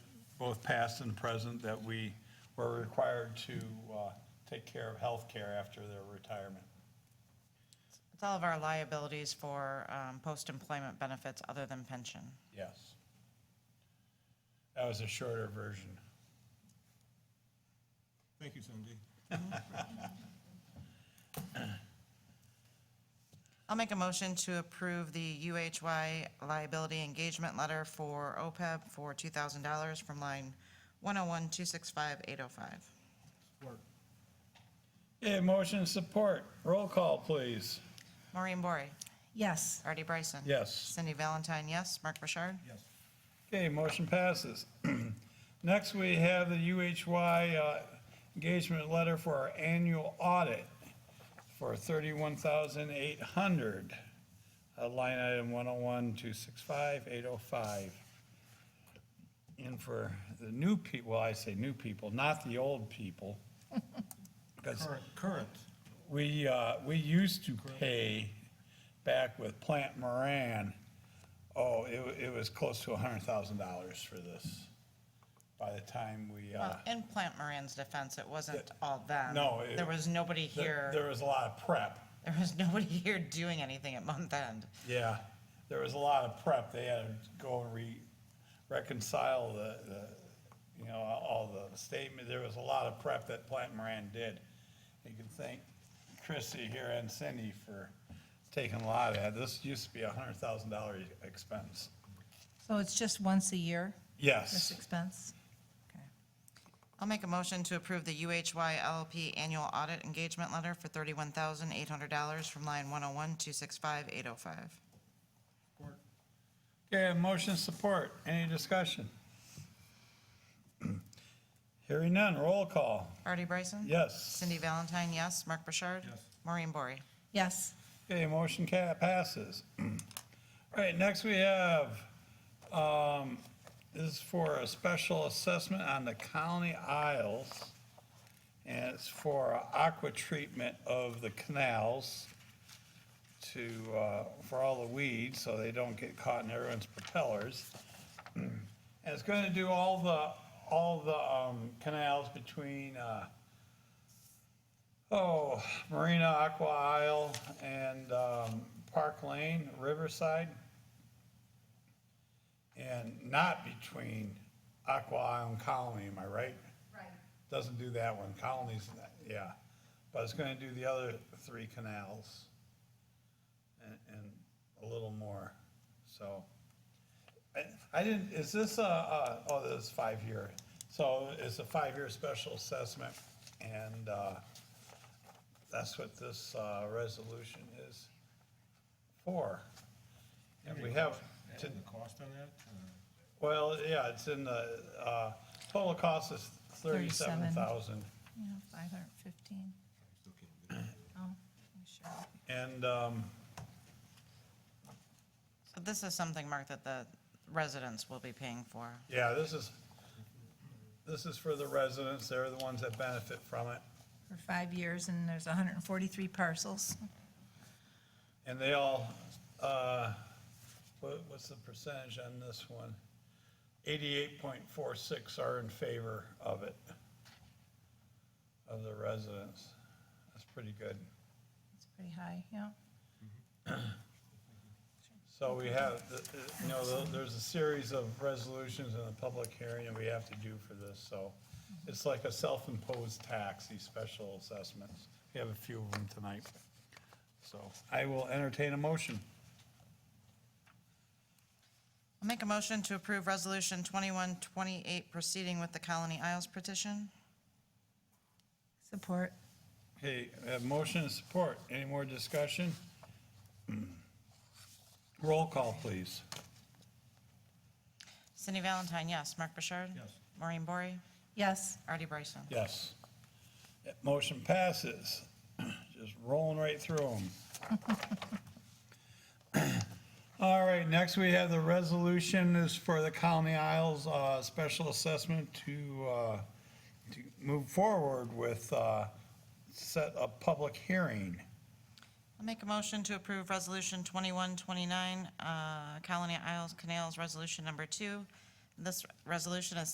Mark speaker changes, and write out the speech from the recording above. Speaker 1: both past and present, that we were required to uh, take care of health care after their retirement.
Speaker 2: It's all of our liabilities for um, post-employment benefits other than pension.
Speaker 1: Yes. That was a shorter version.
Speaker 3: Thank you, Cindy.
Speaker 2: I'll make a motion to approve the UHY liability engagement letter for OPEB for $2,000 from line 101265805.
Speaker 4: Okay, motion and support. Roll call, please.
Speaker 2: Maureen Bory,
Speaker 5: Yes.
Speaker 2: Artie Bryson.
Speaker 4: Yes.
Speaker 2: Cindy Valentine, yes. Mark Burchard.
Speaker 3: Yes.
Speaker 4: Okay, motion passes. Next, we have the UHY uh, engagement letter for our annual audit for $31,800. uh, Line item 101-265-805. And for the new people, well, I say new people, not the old people. Because
Speaker 3: Current, current.
Speaker 4: We, uh, we used to pay back with Plant Moran, oh, it, wa- it was close to a hundred thousand dollars for this. By the time we, uh,
Speaker 2: Well, in Plant Moran's defense, it wasn't all them.
Speaker 4: No, it-
Speaker 2: There was nobody
Speaker 4: there,
Speaker 2: here,
Speaker 4: there was a lot of prep.
Speaker 2: there was nobody here doing anything at month end.
Speaker 4: Yeah, there was a lot of prep. They had to go and re, reconcile the, the, you know, all the statement. There was a lot of prep that Plant Moran did. You can thank Chrissy here and Cindy for taking a lot of that. This used to be a hundred thousand dollar expense.
Speaker 5: So it's just once a year, this
Speaker 4: Yes.
Speaker 5: expense? Okay.
Speaker 2: I'll make a motion to approve the UHY LLP annual audit engagement letter for thirty-one thousand eight hundred dollars from line one oh one, two six five, eight oh five.
Speaker 4: Okay, motion support. Any discussion? Hearing none. Roll call.
Speaker 2: Artie Bryson?
Speaker 4: Yes.
Speaker 2: Cindy Valentine, yes. Mark Burchard?
Speaker 3: Yes.
Speaker 2: Maureen Bory?
Speaker 5: Yes.
Speaker 4: Okay, motion ca- passes. All right, next we have, um, this is for a special assessment on the Colony Isles. And it's for aqua treatment of the canals to, uh, for all the weeds, so they don't get caught in everyone's propellers. And it's gonna do all the, all the, um, canals between, uh, Oh, Marina Aqua Isle and um, Park Lane, Riverside. And not between Aqua Isle and Colony, am I right? Right. Doesn't do that one, Colony's, yeah. But it's gonna do the other three canals and, and a little more, so. I- I didn't, is this a, a- oh, this is five-year. So it's a five-year special assessment and, uh, that's what this uh, resolution is for. And we have, to-
Speaker 3: And the cost on that? uh,
Speaker 4: well, yeah, it's in the, uh, total cost is thirty-seven thousand.
Speaker 5: Yeah, 515.
Speaker 3: Still can't do it.
Speaker 5: Oh, I'm sure.
Speaker 4: And, um,
Speaker 2: So this is something, Mark, that the residents will be paying for.
Speaker 4: yeah, this is, this is for the residents, they're the ones that benefit from it.
Speaker 5: For five years, and there's 143 parcels.
Speaker 4: And they all, uh, what, what's the percentage on this one? Eighty-eight point four six are in favor of it, of the residents. That's pretty good.
Speaker 5: It's pretty high, yeah.
Speaker 4: So we have, the- the- you know, the- there's a series of resolutions in the public hearing that we have to do for this, so it's like a self-imposed tax, these special assessments. We have a few of them tonight. So I will entertain a motion.
Speaker 2: I'll make a motion to approve resolution twenty-one twenty-eight proceeding with the Colony Isles petition.
Speaker 5: Support.
Speaker 4: Okay, we have motion and support. Any more discussion? Roll call, please.
Speaker 2: Cindy Valentine, yes. Mark Burchard?
Speaker 3: Yes.
Speaker 2: Maureen Bory?
Speaker 5: Yes.
Speaker 2: Artie Bryson?
Speaker 4: Yes. That Motion passes. Just rolling right through them. All right, next we have the resolution is for the Colony Isles uh, Special Assessment to, uh, to move forward with uh, set a public hearing.
Speaker 2: I'll make a motion to approve Resolution 2129, uh, Colony Isles Canals Resolution Number Two. This resolution is